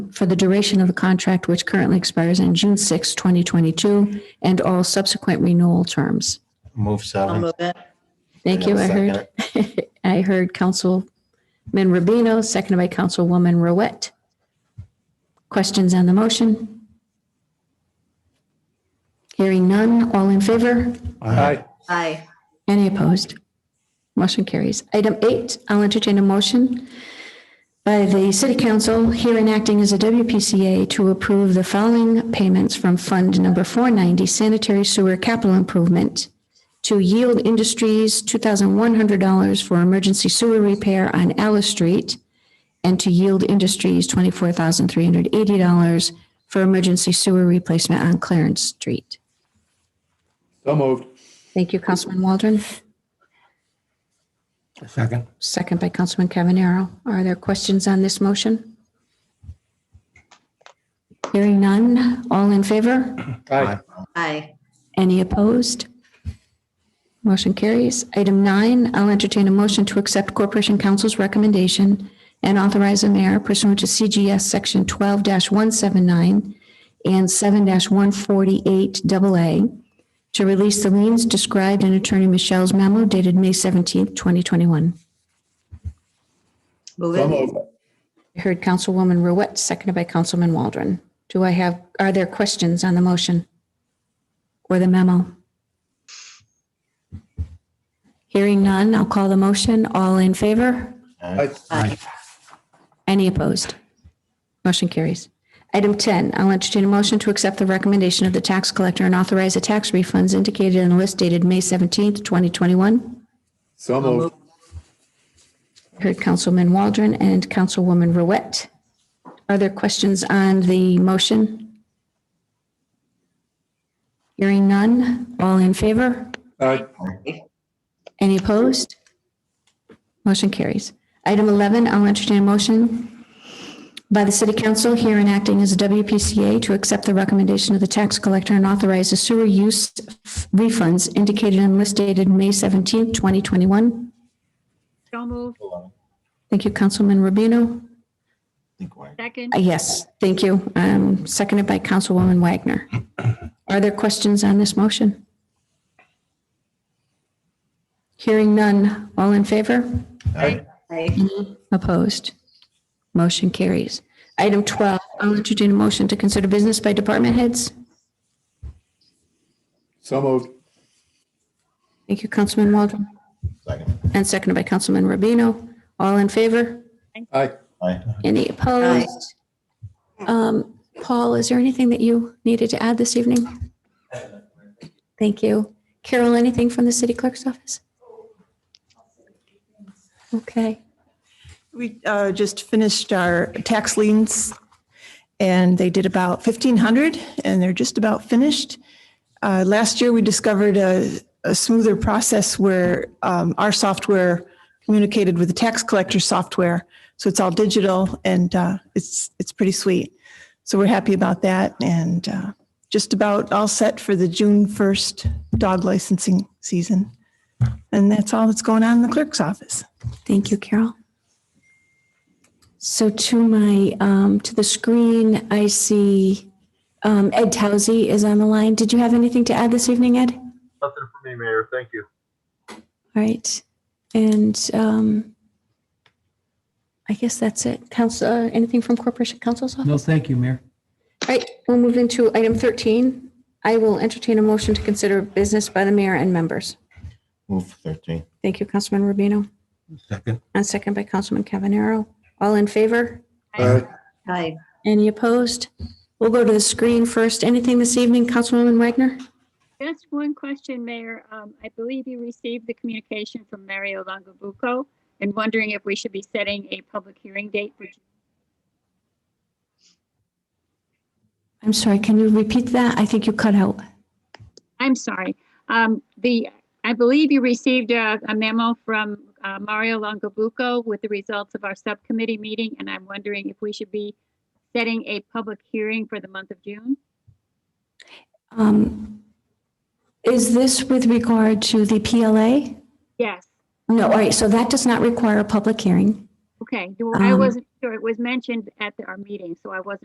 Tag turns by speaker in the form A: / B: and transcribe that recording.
A: for the duration of the contract, which currently expires on June 6, 2022, and all subsequent renewal terms.
B: Move
C: I'll
B: seven.
C: move it.
A: Thank you.
B: And
A: I
B: I'll
A: heard, I heard Councilman Rubino, seconded by Councilwoman Rouette. Questions on the motion? Hearing none. All in favor?
B: Aye.
C: Aye.
A: Any opposed? Motion carries. Item eight, I'll entertain a motion by the City Council here enacting as a WPCA to approve the following payments from Fund Number 490 Sanitary Sewer Capital Improvement to Yield Industries $2,100 for emergency sewer repair on Alice Street and to Yield Industries $24,380 for emergency sewer replacement on Clarence Street.
D: So moved.
A: Thank you, Councilman Waldron.
B: Second.
A: Second by Councilman Cavanero. Are there questions on this motion? Hearing none. All in favor?
B: Aye.
C: Aye.
A: Any opposed? Motion carries. Item nine, I'll entertain a motion to accept Corporation Council's recommendation and authorize the mayor pursuant to CGS Section 12-179 and 7-148AA to release the liens described in Attorney Michelle's memo dated May 17th, 2021.
C: Move
D: So
C: it.
D: moved.
A: I heard Councilwoman Ruette, seconded by Councilman Waldron. Do I have, are there questions on the motion or the memo? Hearing none, I'll call the motion. All in favor?
D: Aye.
C: Aye.
A: Any opposed? Motion carries. Item 10, I'll entertain a motion to accept the recommendation of the tax collector and authorize the tax refunds indicated in the list dated May 17th, 2021.
D: So moved.
A: Heard Councilman Waldron and Councilwoman Ruette. Are there questions on the motion? Hearing none, all in favor?
D: Aye.
A: Any opposed? Motion carries. Item 11, I'll entertain a motion by the City Council here enacting as a WPCA to accept the recommendation of the tax collector and authorize the sewer use refunds indicated and list dated May 17, 2021.
E: So moved.
B: I
A: Thank you, Councilman Rubino.
B: think we're-
E: Second.
A: Uh, Yes, thank you. Um, Seconded by Councilwoman Wagner. Are there questions on this motion? Hearing none. All in favor?
B: Aye.
C: Aye.
A: Opposed? Motion carries. Item 12, I'll entertain a motion to consider business by department heads.
D: So moved.
A: Thank you, Councilman Waldron,
B: Second.
A: and seconded by Councilman Rubino. All in favor?
D: Aye.
B: Aye.
A: Any opposed? Um, Paul, is there anything that you needed to add this evening? Thank you. Carol, anything from the city clerk's office? Okay,
F: We uh, just finished our tax liens and they did about 1,500 and they're just about finished. Uh, Last year, we discovered a a smoother process where um, our software communicated with the tax collector software. So it's all digital and uh, it's, it's pretty sweet. So we're happy about that and uh, just about all set for the June 1st dog licensing season. And that's all that's going on in the clerk's office.
A: thank you, Carol. So to my, um, to the screen, I see Um, Ed Towsey is on the line. Did you have anything to add this evening, Ed? All
G: Nothing for me, Mayor. Thank you.
A: right. And um, I guess that's it. Council, uh, anything from Corporation Council's office?
H: No, thank you, Mayor.
A: All right, we'll move into item 13. I will entertain a motion to consider business by the mayor and members.
B: Move thirteen.
A: Thank you, Councilman Rubino,
B: Second.
A: and second by Councilman Cavanero. All in favor?
D: Aye.
C: Aye.
A: Any opposed? We'll go to the screen first. Anything this evening, Councilwoman Wagner?
E: Just one question, Mayor. Um, I believe you received the communication from Mario Longobuco and wondering if we should be setting a public hearing date for
A: I'm sorry, can you repeat that? I think you cut out.
E: I'm sorry. Um, the, I believe you received a a memo from uh, Mario Longobuco with the results of our subcommittee meeting, and I'm wondering if we should be setting a public hearing for the month of June?
A: Um, Is this with regard to the PLA?
E: Yes.
A: No, all right, so that does not require a public hearing.
E: Okay. Well, I
A: Um,
E: wasn't sure. It was mentioned at the- our meeting, so I wasn't